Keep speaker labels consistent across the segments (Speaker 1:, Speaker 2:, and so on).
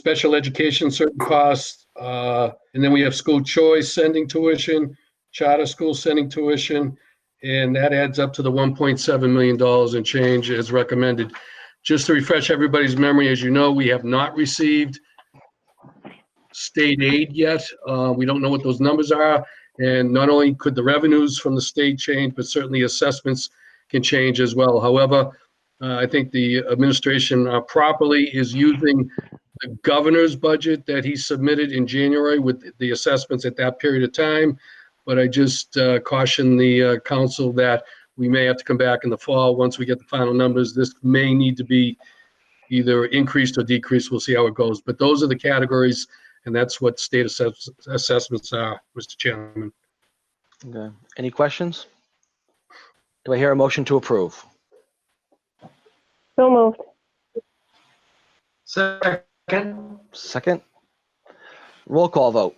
Speaker 1: special education, certain costs. uh, And then we have school choice sending tuition, charter school sending tuition. And that adds up to the $1.7 million in change as recommended. Just to refresh everybody's memory, as you know, we have not received state aid yet. Uh, We don't know what those numbers are. And not only could the revenues from the state change, but certainly assessments can change as well. However, uh, I think the administration uh, properly is using the governor's budget that he submitted in January with the assessments at that period of time. But I just uh, caution the uh, council that we may have to come back in the fall, once we get the final numbers. This may need to be either increased or decreased. We'll see how it goes. But those are the categories, and that's what state assess- assessments are, Mr. Chairman.
Speaker 2: Okay. Any questions? Do I hear a motion to approve?
Speaker 3: So moved.
Speaker 4: Second?
Speaker 2: Second? Roll call vote.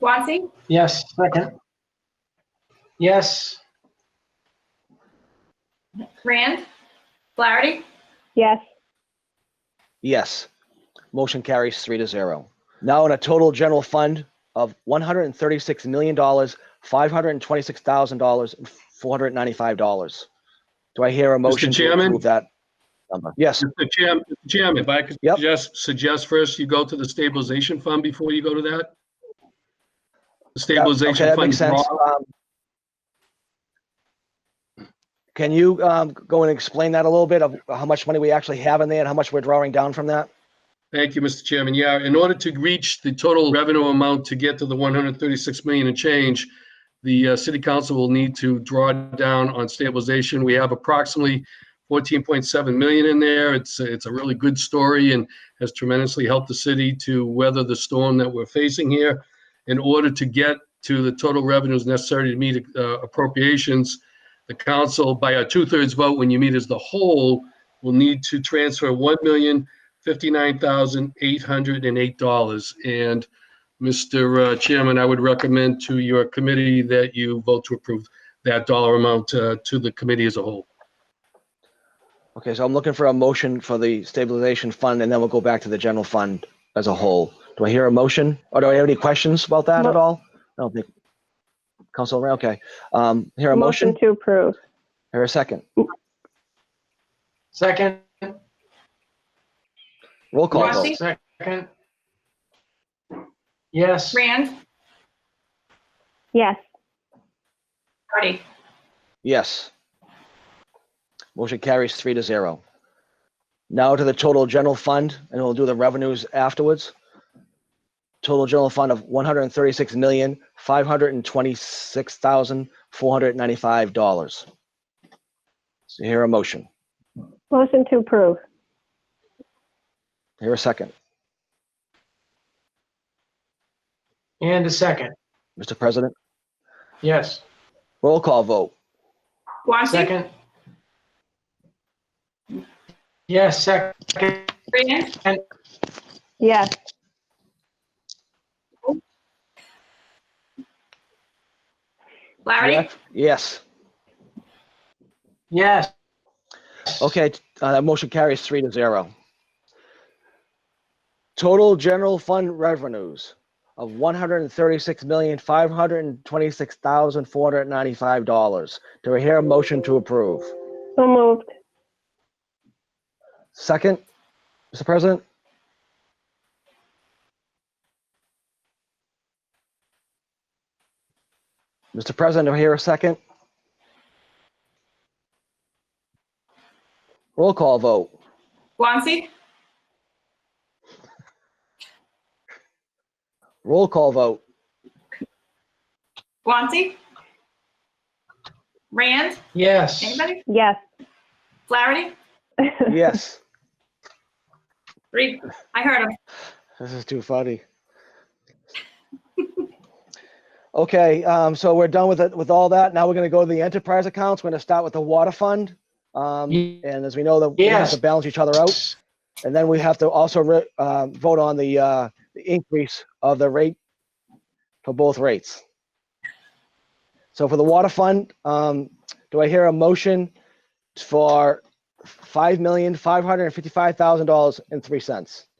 Speaker 5: Guanxi,
Speaker 4: Yes, second. Yes,
Speaker 5: Rand, Flaherty,
Speaker 3: Yes.
Speaker 2: Yes. Motion carries three to zero. Now in a total general fund of one hundred and thirty-six million dollars, five hundred and twenty-six thousand dollars, and four hundred and ninety-five dollars. Do I hear a motion to
Speaker 1: Chairman?
Speaker 2: approve that number? Yes,
Speaker 1: Mr. Chair- Mr. Chairman, if I could
Speaker 2: Yep.
Speaker 1: suggest, suggest first you go to the stabilization fund before you go to that? The
Speaker 2: Yeah, okay,
Speaker 1: Stabilization
Speaker 2: that
Speaker 1: fund
Speaker 2: makes sense.
Speaker 1: draw.
Speaker 2: Um, Can you um, go and explain that a little bit of how much money we actually have in there and how much we're drawing down from that?
Speaker 1: Thank you, Mr. Chairman. Yeah, in order to reach the total revenue amount to get to the 136 million and change, the uh, city council will need to draw down on stabilization. We have approximately 14.7 million in there. It's, it's a really good story and has tremendously helped the city to weather the storm that we're facing here. In order to get to the total revenues necessary to meet uh, appropriations, the council, by a two-thirds vote, when you meet as the whole, will need to transfer 1 million $59,808. And Mr. uh, Chairman, I would recommend to your committee that you vote to approve that dollar amount uh, to the committee as a whole.
Speaker 2: Okay, so I'm looking for a motion for the stabilization fund and then we'll go back to the general fund as a whole. Do I hear a motion? Or do I have any questions about that at
Speaker 3: Mo-
Speaker 2: all? I don't think. Council, Ray, okay. Um, Hear a motion?
Speaker 3: to approve.
Speaker 2: Hear a second?
Speaker 4: second.
Speaker 2: Roll call
Speaker 5: Yes.
Speaker 2: vote.
Speaker 4: Yes, second. Yes,
Speaker 5: Rand,
Speaker 3: Yes.
Speaker 5: Flaherty.
Speaker 2: Yes. Motion carries three to zero. Now to the total general fund, and we'll do the revenues afterwards. Total general fund of one hundred and thirty-six million, five hundred and twenty-six thousand, four hundred and ninety-five dollars. So here a motion,
Speaker 3: Motion to approve.
Speaker 2: here a second.
Speaker 4: and a second.
Speaker 2: Mr. President,
Speaker 4: Yes,
Speaker 2: roll call vote.
Speaker 5: Guanxi,
Speaker 4: second. Yes, second.
Speaker 5: Rand,
Speaker 3: Yes.
Speaker 5: Flaherty,
Speaker 2: Yes.
Speaker 4: Yes,
Speaker 2: Okay, t- uh, that motion carries three to zero. Total general fund revenues of one hundred and thirty-six million, five hundred and twenty-six thousand, four hundred and ninety-five dollars. Do I hear a motion to approve?
Speaker 3: So moved.
Speaker 2: Second, Mr. President? Mr. President, do I hear a second? Roll call vote.
Speaker 5: Guanxi,
Speaker 2: Roll call vote.
Speaker 5: Guanxi, Rand,
Speaker 4: yes.
Speaker 5: anybody?
Speaker 3: Yes.
Speaker 5: Flaherty,
Speaker 2: Yes.
Speaker 5: Reed, I heard him.
Speaker 2: This is too funny. Okay, um, so we're done with it, with all that. Now we're gonna go to the enterprise accounts. We're gonna start with the water fund. Um,
Speaker 4: Ye-
Speaker 2: and as we know, that we have to
Speaker 4: Yes.
Speaker 2: balance each other out. And then we have to also, re- um, vote on the, uh, the increase of the rate for both rates. So for the water fund, um, do I hear a motion for five million, five hundred and fifty-five thousand dollars and three cents?